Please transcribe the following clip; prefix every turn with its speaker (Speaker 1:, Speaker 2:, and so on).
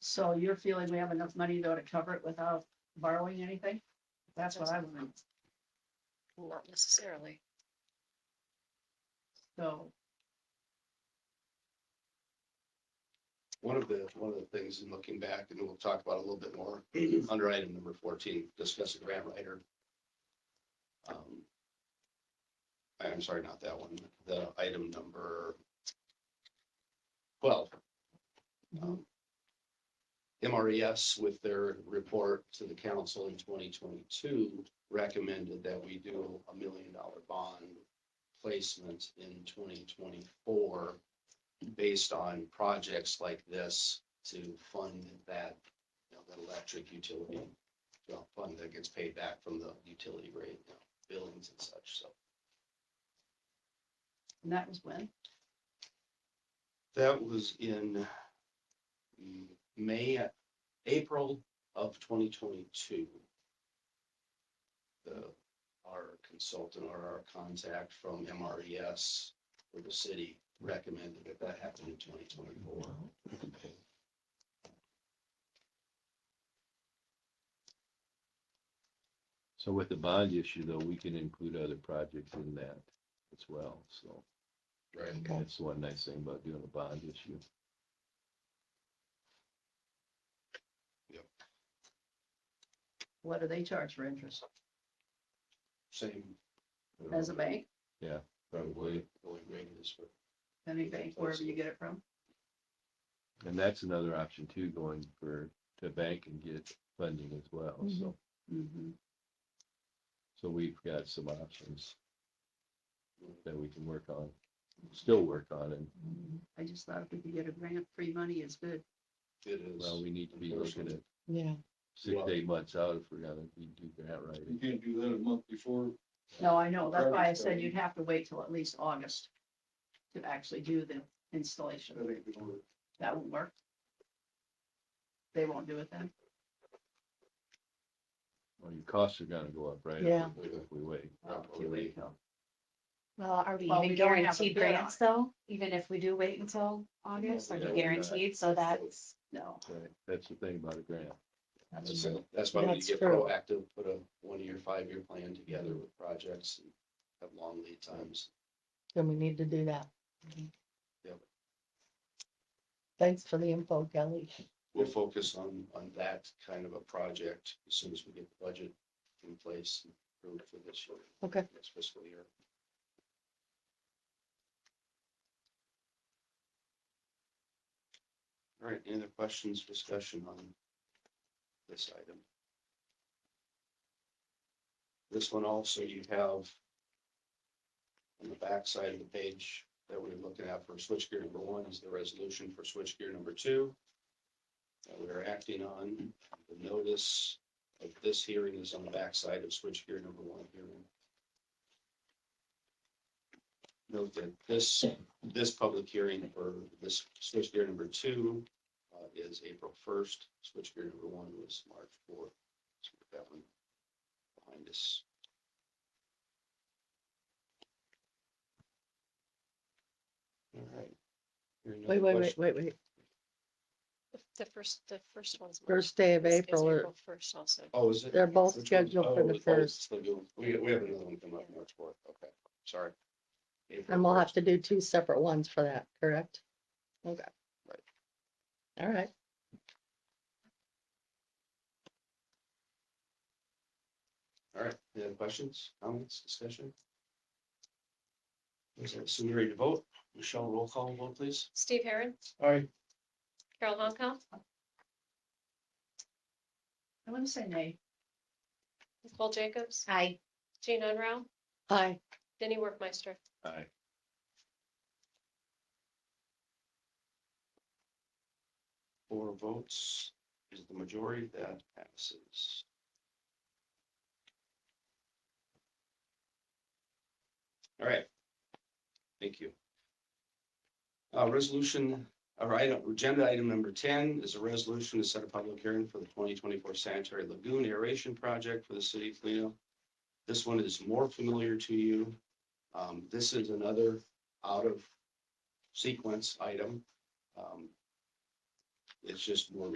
Speaker 1: So you're feeling we have enough money though to cover it without borrowing anything? That's what I want,
Speaker 2: Not necessarily.
Speaker 1: so,
Speaker 3: One of the, one of the things in looking back, and we'll talk about a little bit more, under item number fourteen, discuss a grant writer. Um, I'm sorry, not that one, the item number twelve. um, MRES with their report to the council in twenty twenty-two recommended that we do a million dollar bond placement in twenty twenty-four based on projects like this to fund that, you know, that electric utility, well, fund that gets paid back from the utility rate, you know, billings and such, so.
Speaker 1: and that was when?
Speaker 3: That was in mm, May, April of twenty twenty-two. The, our consultant or our contact from MRES for the city recommended that that happen in twenty twenty-four.
Speaker 4: So with the bond issue though, we can include other projects in that as well, so
Speaker 3: Right.
Speaker 4: that's one nice thing about doing a bond issue.
Speaker 1: What do they charge for interest?
Speaker 3: Same.
Speaker 1: As a bank,
Speaker 4: Probably,
Speaker 3: Going rate is for
Speaker 1: any bank, wherever you get it from?
Speaker 4: and that's another option too, going for, to bank and get funding as well, so,
Speaker 1: Mhm.
Speaker 4: so we've got some options that we can work on, still work on, and,
Speaker 1: I just thought if we could get a grant, free money is good.
Speaker 3: It is.
Speaker 4: well, we need to be looking at
Speaker 5: Yeah.
Speaker 4: six,
Speaker 3: Well-
Speaker 4: to eight months out if we're gonna be do grant writing.
Speaker 6: You can't do that a month before.
Speaker 1: No, I know, that's why I
Speaker 6: Perfect.
Speaker 1: said you'd have to wait till at least August to actually do the installation.
Speaker 6: That ain't gonna work.
Speaker 1: That won't work. They won't do it then?
Speaker 4: Well, your costs are gonna go up, right? if
Speaker 5: Yeah.
Speaker 4: we- If we wait,
Speaker 1: Oh, if you wait till-
Speaker 2: Well, are we
Speaker 1: Well,
Speaker 2: even
Speaker 1: we don't have a
Speaker 2: guaranteed
Speaker 1: bid on
Speaker 2: grants though? Even if we do wait until August, are
Speaker 4: Yeah,
Speaker 2: we
Speaker 4: we're not.
Speaker 2: guaranteed? So that's,
Speaker 1: No,
Speaker 4: right, that's the thing about a grant.
Speaker 1: that's
Speaker 3: That's,
Speaker 1: true.
Speaker 3: that's why we
Speaker 5: That's
Speaker 3: get
Speaker 5: true.
Speaker 3: proactive, put a one-year, five-year plan together with projects and have long lead times.
Speaker 5: Then we need to do that.
Speaker 2: Mhm.
Speaker 3: Yep.
Speaker 5: Thanks for the info, Kelly.
Speaker 3: We'll focus on, on that kind of a project as soon as we get the budget in place and approved for this year.
Speaker 5: Okay.
Speaker 3: This fiscal year. All right, any other questions, discussion on this item? This one also you have on the back side of the page that we're looking at for switchgear number one is the resolution for switchgear number two that we are acting on. The notice of this hearing is on the backside of switchgear number one hearing. Note that this, this public hearing for this switchgear number two uh, is April first. Switchgear number one was March fourth. So we've got that one behind us. All right. Hearing no
Speaker 5: Wait, wait, wait,
Speaker 3: question-
Speaker 5: wait, wait.
Speaker 2: the first, the first one's.
Speaker 5: First day of
Speaker 2: is- is
Speaker 5: April, or-
Speaker 2: First also.
Speaker 3: Oh, is it?
Speaker 5: they're both
Speaker 3: Which one?
Speaker 5: scheduled for
Speaker 3: Oh,
Speaker 5: the
Speaker 3: oh,
Speaker 5: first,
Speaker 3: so you- We, we have another one come up March fourth, okay, sorry. April
Speaker 5: and we'll have
Speaker 3: 1st.
Speaker 5: to do two separate ones for that, correct? Okay.
Speaker 3: Right.
Speaker 5: All right.
Speaker 3: All right, any other questions, comments, discussion? Is it soon ready to vote? Michelle, roll call, vote please.
Speaker 2: Steve Heron,
Speaker 3: All right.
Speaker 2: Carol Holcomb,
Speaker 1: I wouldn't say nay.
Speaker 2: Nicole Jacobs. Hi. Jean Enra,
Speaker 5: Hi,
Speaker 2: Denny Workmeister.
Speaker 4: Aye.
Speaker 3: Four votes is the majority, that passes. All right. Thank you. Uh, resolution, all right, agenda item number ten is a resolution to set a public hearing for the twenty twenty-four sanitary lagoon aeration project for the city of Toledo. This one is more familiar to you. Um, this is another out of sequence item. Um, It's just more